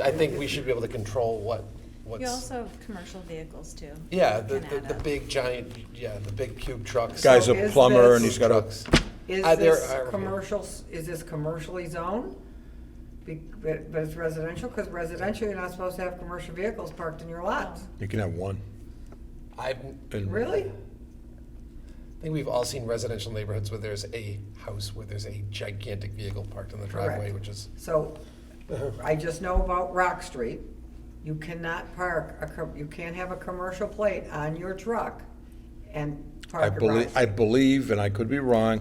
I think we should be able to control what, You what's, also have commercial vehicles too. yeah, the, You can the, add the up. big giant, yeah, the big cube trucks. Guy's a is plumber this- and he's got a, Trucks. Is Uh, there this are- commercial, is this commercially zoned? Be- But but it's residential, because residential, you're not supposed to have commercial vehicles parked in your lots. you can have one. I and- Really? think we've all seen residential neighborhoods where there's a house where there's a gigantic vehicle parked in the driveway, Correct. which is, So, Uh-huh. I just know about Rock Street. You cannot park, a co- you can't have a commercial plate on your truck and I park at Rock believe, I Street. believe, and I could be wrong,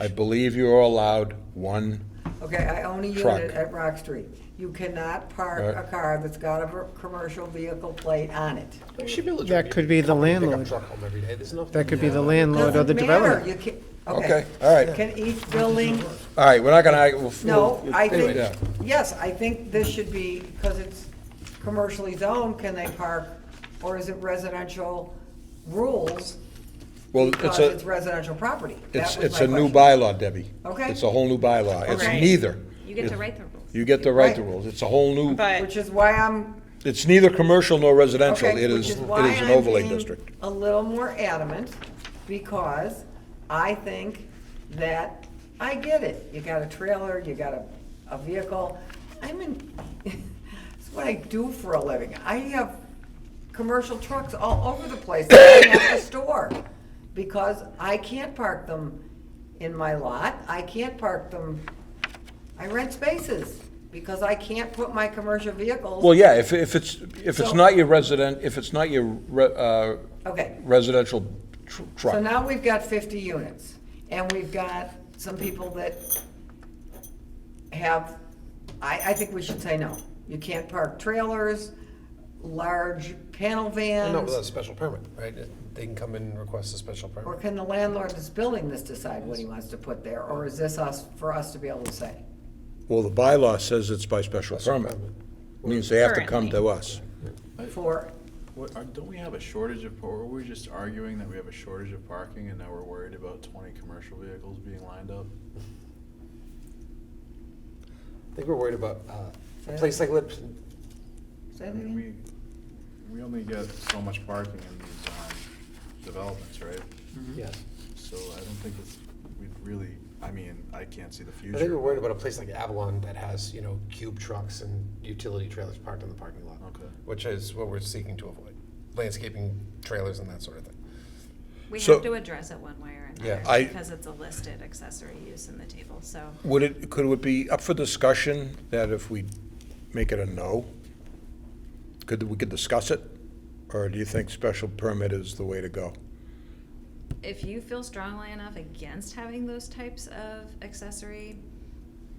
I believe you're allowed one, Okay, I own a Truck. unit at Rock Street. You cannot park Right. a car that's got a ver- commercial vehicle plate on it. there should be a That could be the pickup landlord. truck home every day, there's no. That could be the landlord or the Doesn't matter. developer. You can, okay, okay. all right, Can each building all right, we're not gonna, I- we'll- No, we'll- I anyway, think, yeah. yes, I think this should be, because it's commercially zoned, can they park? Or is it residential rules Well, it's because a, it's residential property? That it's, was it's my a new question. bylaw, Debbie. Okay. It's a whole new bylaw, it's Okay. neither. You get to It- write the rules. You get to write the Right. rules, it's a whole new, But Which is why I'm, it's neither commercial nor residential, okay, it which is, is it why is an I'm overlay being district. a little more adamant, because I think that, I get it. You got a trailer, you got a, a vehicle. I'm in, it's what I do for a living. I have commercial trucks all over the place that I have to store because I can't park them in my lot. I can't park them, I rent spaces because I can't put my commercial vehicles. Well, yeah, if, if it's, if it's So- not your resident, if it's not your re- uh, Okay, residential tr- truck. so now we've got fifty units and we've got some people that have, I, I think we should say no. You can't park trailers, large panel vans. No, without a special permit, right? They can come in and request a special permit. Or can the landlord that's building this decide what he wants to put there, or is this us, for us to be able to say? Well, the bylaw says it's by special permit. Means they have to come to Currently. us. For, What, are- don't we have a shortage of, par- were we just arguing that we have a shortage of parking and now we're worried about twenty commercial vehicles being lined up? I think we're worried about, uh, a place like Lipton, say I that mean, again? we, we only get so much parking in these, um, developments, right? Mm-hmm. yes. So I don't think it's, we'd really, I mean, I can't see the future. I think we're worried about a place like Avalon that has, you know, cube trucks and utility trailers parked in the parking lot. Okay. Which is what we're seeking to avoid, landscaping trailers and that sort of thing. We So- have to address it one way or Yeah, another I- because it's a listed accessory use in the table, so. Would it, could it be up for discussion that if we make it a no, could, we could discuss it? Or do you think special permit is the way to go? If you feel strongly enough against having those types of accessory,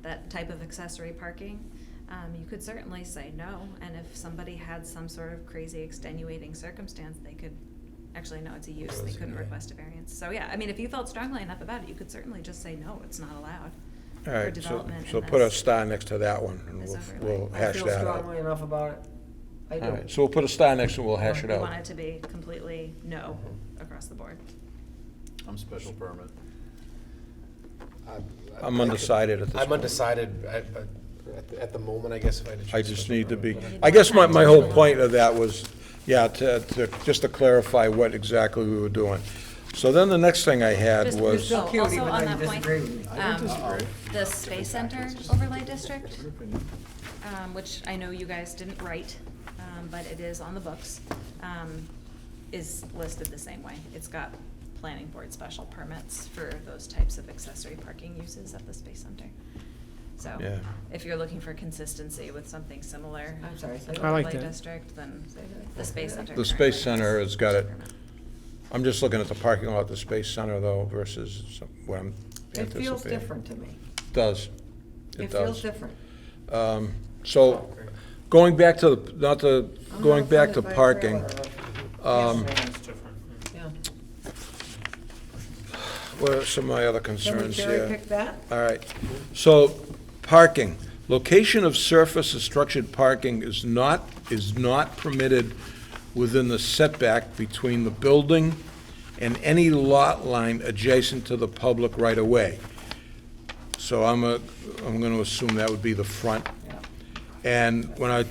that type of accessory parking, um, you could certainly say no. And if somebody had some sort of crazy extenuating circumstance, they could, actually, no, it's a use, they couldn't request a variance. So, yeah, I mean, if you felt strongly enough about it, you could certainly just say no, it's not allowed. All for right, so, development in so put a this. star next to that one, and This we'll, overlay. we'll I hash feel that out. strongly enough about it. I All right, do. so we'll put a star next and we'll hash it We want out. it to be completely no Mm-hmm. across the board. I'm special permit. I- I- I'm undecided at this I'm point. undecided, I- but at, the- at the moment, I guess, if I had to choose. I just special need to permit, be, but- I guess my, my whole point of that was, yeah, to, to, just to clarify what exactly we were doing. So then the next thing I had Just- was. Still Oh, cute, also even though on you that point- disagree with me. Um, The Space Center Overlay District, um, which I know you guys didn't write, um, but it is on the books, um, is listed the same way. It's got planning board special permits for those types of accessory parking uses at the Space Center. So Yeah. if you're looking for consistency with something similar. I'm sorry, say an that. I like overlay that. District, then Say that. the Space Center. The Space currently Center has got it. special permit. I'm just looking at the parking lot, the Space Center though versus some- what I'm It anticipating. feels different to me. Does. It It does. feels different. Um, So, going back to, the not the, I'm going not back to offended by parking, trailer. um, Yes, Yeah. what are some of my other Can we concerns here? cherry pick that? All right. So, parking. Location of surface or structured parking is not, is not permitted within the setback between the building and any lot line adjacent to the public right-of-way. So I'm a, I'm gonna assume that would be the front. Yeah. And when I